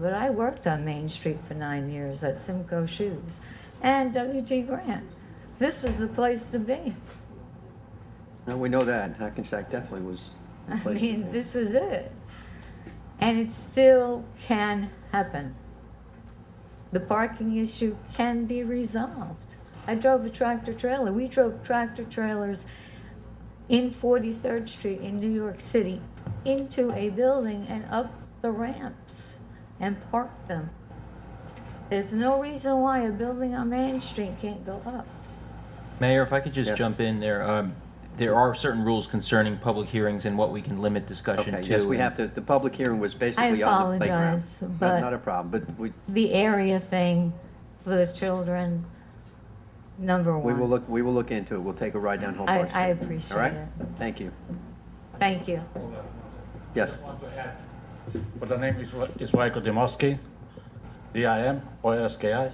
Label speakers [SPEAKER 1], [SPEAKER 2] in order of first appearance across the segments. [SPEAKER 1] But I worked on Main Street for nine years at Simcoe Shoes and W.G. Grant. This was the place to be.
[SPEAKER 2] No, we know that. Hackensack definitely was. the
[SPEAKER 1] I
[SPEAKER 2] place to
[SPEAKER 1] mean,
[SPEAKER 2] be.
[SPEAKER 1] this was it. And it still can happen. The parking issue can be resolved. I drove a tractor trailer. We drove tractor trailers in 43rd Street in New York City into a building and up the ramps and parked them. There's no reason why a building on Main Street can't go up.
[SPEAKER 3] Mayor, if I could just
[SPEAKER 2] Yes.
[SPEAKER 3] jump in there, um, there are certain rules concerning public hearings and what we can limit discussion to.
[SPEAKER 2] Okay, yes, we
[SPEAKER 3] and-
[SPEAKER 2] have to, the public hearing was basically
[SPEAKER 1] I
[SPEAKER 2] on the playground.
[SPEAKER 1] apologize,
[SPEAKER 2] Not-
[SPEAKER 1] but-
[SPEAKER 2] Not a problem, but we,
[SPEAKER 1] the area thing for the children, number
[SPEAKER 2] we
[SPEAKER 1] one.
[SPEAKER 2] will look, we will look into it. We'll take a ride down Home
[SPEAKER 1] I-
[SPEAKER 2] Park Street.
[SPEAKER 1] I
[SPEAKER 2] All right?
[SPEAKER 1] appreciate
[SPEAKER 2] Thank you.
[SPEAKER 1] Thank you.
[SPEAKER 2] Yes,
[SPEAKER 4] want to add, but the name is, is Rajko Dimoski, D-I-M-O-S-K-I.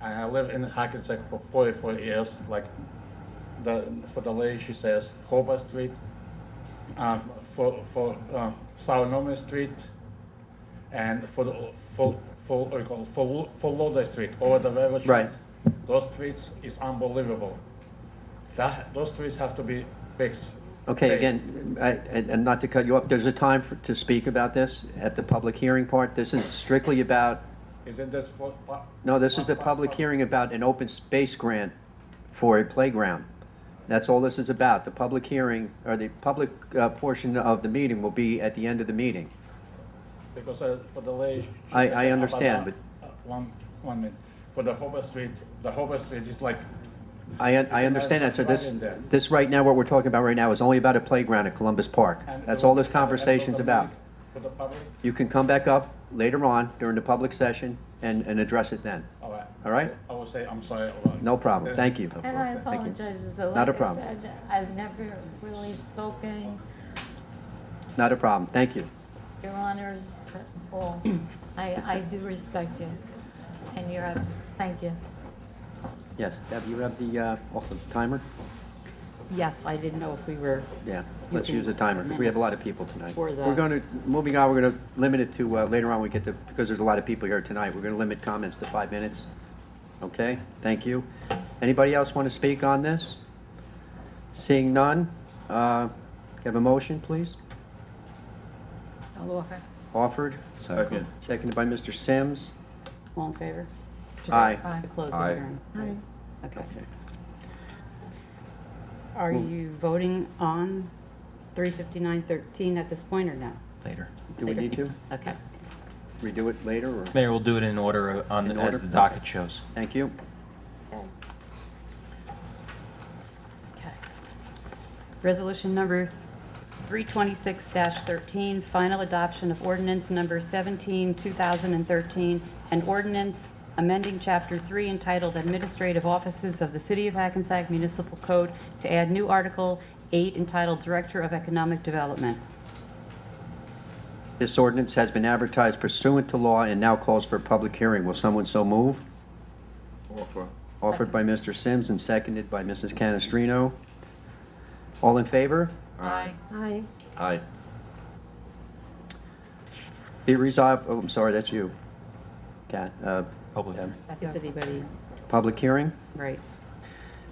[SPEAKER 4] And I live in Hackensack for 44 years, like the, for the lady, she says, Hobart Street, um, for, for, um, South Norman Street, and for, the- for, for, what do you call it, for, Lo- for Lodi Street, over the railroad
[SPEAKER 2] Right.
[SPEAKER 4] tracks. Those streets is unbelievable. That, those streets have to be fixed.
[SPEAKER 2] okay,
[SPEAKER 4] Fixed.
[SPEAKER 2] again, I- and and not to cut you up, there's a time for- to speak about this at the public hearing part. This is strictly about,
[SPEAKER 4] Isn't this for? pa-
[SPEAKER 2] no, this is the
[SPEAKER 4] pa-
[SPEAKER 2] public
[SPEAKER 4] pa-
[SPEAKER 2] hearing about an open space grant for a playground. That's all this is about. The public hearing, or the public uh, portion of the meeting will be at the end of the meeting.
[SPEAKER 4] Because uh, for the lay.
[SPEAKER 2] I- I understand, but-
[SPEAKER 4] One, one minute. For the Hobart Street, the Hobart Street is like,
[SPEAKER 2] I, un- I understand that, so this, this right now, what we're talking about right now is only about a playground at Columbus Park.
[SPEAKER 4] and-
[SPEAKER 2] That's all this
[SPEAKER 4] and- and
[SPEAKER 2] conversation's
[SPEAKER 4] for the
[SPEAKER 2] about.
[SPEAKER 4] public- For the public,
[SPEAKER 2] You can come back up later on during the public session and, and address it then.
[SPEAKER 4] all right.
[SPEAKER 2] All right?
[SPEAKER 4] I will say, I'm sorry. all right.
[SPEAKER 2] No problem,
[SPEAKER 4] Then-
[SPEAKER 2] thank you.
[SPEAKER 1] And I
[SPEAKER 2] Thank you.
[SPEAKER 1] apologize as well.
[SPEAKER 2] Not a
[SPEAKER 1] Like I
[SPEAKER 2] problem.
[SPEAKER 1] said, I've never really spoken,
[SPEAKER 2] Not a problem, thank you.
[SPEAKER 1] your honors, all. I, I do respect you and your, thank you.
[SPEAKER 2] Yes, Deb, you have the, uh, also timer?
[SPEAKER 5] Yes, I didn't know if we were,
[SPEAKER 2] Yeah, let's
[SPEAKER 5] can-
[SPEAKER 2] use the timer, because we have a lot of people tonight.
[SPEAKER 5] For the-
[SPEAKER 2] We're gonna, moving on, we're gonna limit it to, uh, later on, we get to, because there's a lot of people here tonight, we're gonna limit comments to five minutes. Okay, thank you. Anybody else want to speak on this? Seeing none, uh, have a motion, please?
[SPEAKER 5] I'll offer.
[SPEAKER 2] Offered,
[SPEAKER 6] Second.
[SPEAKER 2] seconded by Mr. Sims.
[SPEAKER 5] All in favor?
[SPEAKER 2] Aye.
[SPEAKER 5] To close the
[SPEAKER 6] Aye.
[SPEAKER 5] hearing. Okay.
[SPEAKER 2] Okay.
[SPEAKER 5] Are you voting on three fifty-nine thirteen at this point or no?
[SPEAKER 3] Later.
[SPEAKER 2] Do we need to
[SPEAKER 5] Okay.
[SPEAKER 2] redo it later, or?
[SPEAKER 3] Mayor, we'll do it in order uh, on,
[SPEAKER 2] In order?
[SPEAKER 3] as the docket shows.
[SPEAKER 2] Thank you.
[SPEAKER 5] Okay. Resolution number three twenty-six thirteen, final adoption of ordinance number seventeen, two thousand and thirteen, an ordinance amending chapter three entitled Administrative Offices of the City of Hackensack Municipal Code to add new article eight entitled Director of Economic Development.
[SPEAKER 2] This ordinance has been advertised pursuant to law and now calls for a public hearing. Will someone so move?
[SPEAKER 6] Offer.
[SPEAKER 2] Offered by Mr. Sims and seconded by Mrs. Canestrino. All in favor?
[SPEAKER 5] Aye.
[SPEAKER 7] Aye.
[SPEAKER 6] Aye.
[SPEAKER 2] Be resolved, oh, I'm sorry, that's you. Cat, uh,
[SPEAKER 3] Public hearing.
[SPEAKER 5] Is anybody,
[SPEAKER 2] public hearing?
[SPEAKER 5] right?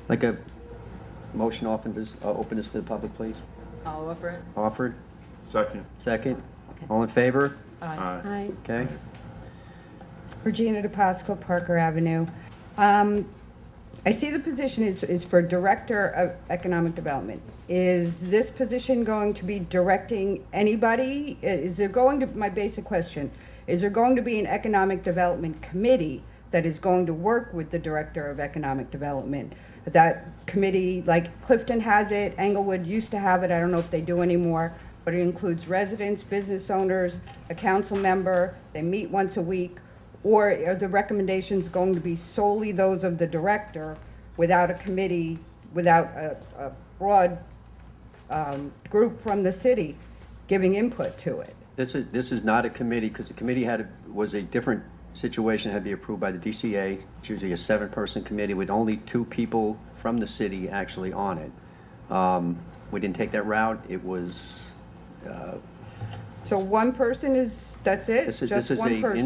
[SPEAKER 2] Like a motion open this, uh, open this to the public, please?
[SPEAKER 5] I'll offer it.
[SPEAKER 2] Offered,
[SPEAKER 6] Second.
[SPEAKER 2] second?
[SPEAKER 5] Okay.
[SPEAKER 2] All in favor?
[SPEAKER 6] Aye.
[SPEAKER 7] Aye.
[SPEAKER 2] Okay.
[SPEAKER 7] Regina DePasqua, Parker Avenue. Um, I see the position is, is for Director of Economic Development. Is this position going to be directing anybody? I- Is there going to, my basic question, is there going to be an Economic Development Committee that is going to work with the Director of Economic Development? That committee, like Clifton has it, Englewood used to have it, I don't know if they do anymore, but it includes residents, business owners, a council member, they meet once a week. Or are the recommendations going to be solely those of the director without a committee, without a, a broad, um, group from the city giving input to it?
[SPEAKER 2] This is, this is not a committee, because the committee had, a- was a different situation, had to be approved by the DCA. It's usually a seven-person committee with only two people from the city actually on it. Um, We didn't take that route, it was,
[SPEAKER 7] So one person is that's it,
[SPEAKER 2] This is-
[SPEAKER 7] just
[SPEAKER 2] this is
[SPEAKER 7] one
[SPEAKER 2] a
[SPEAKER 7] person.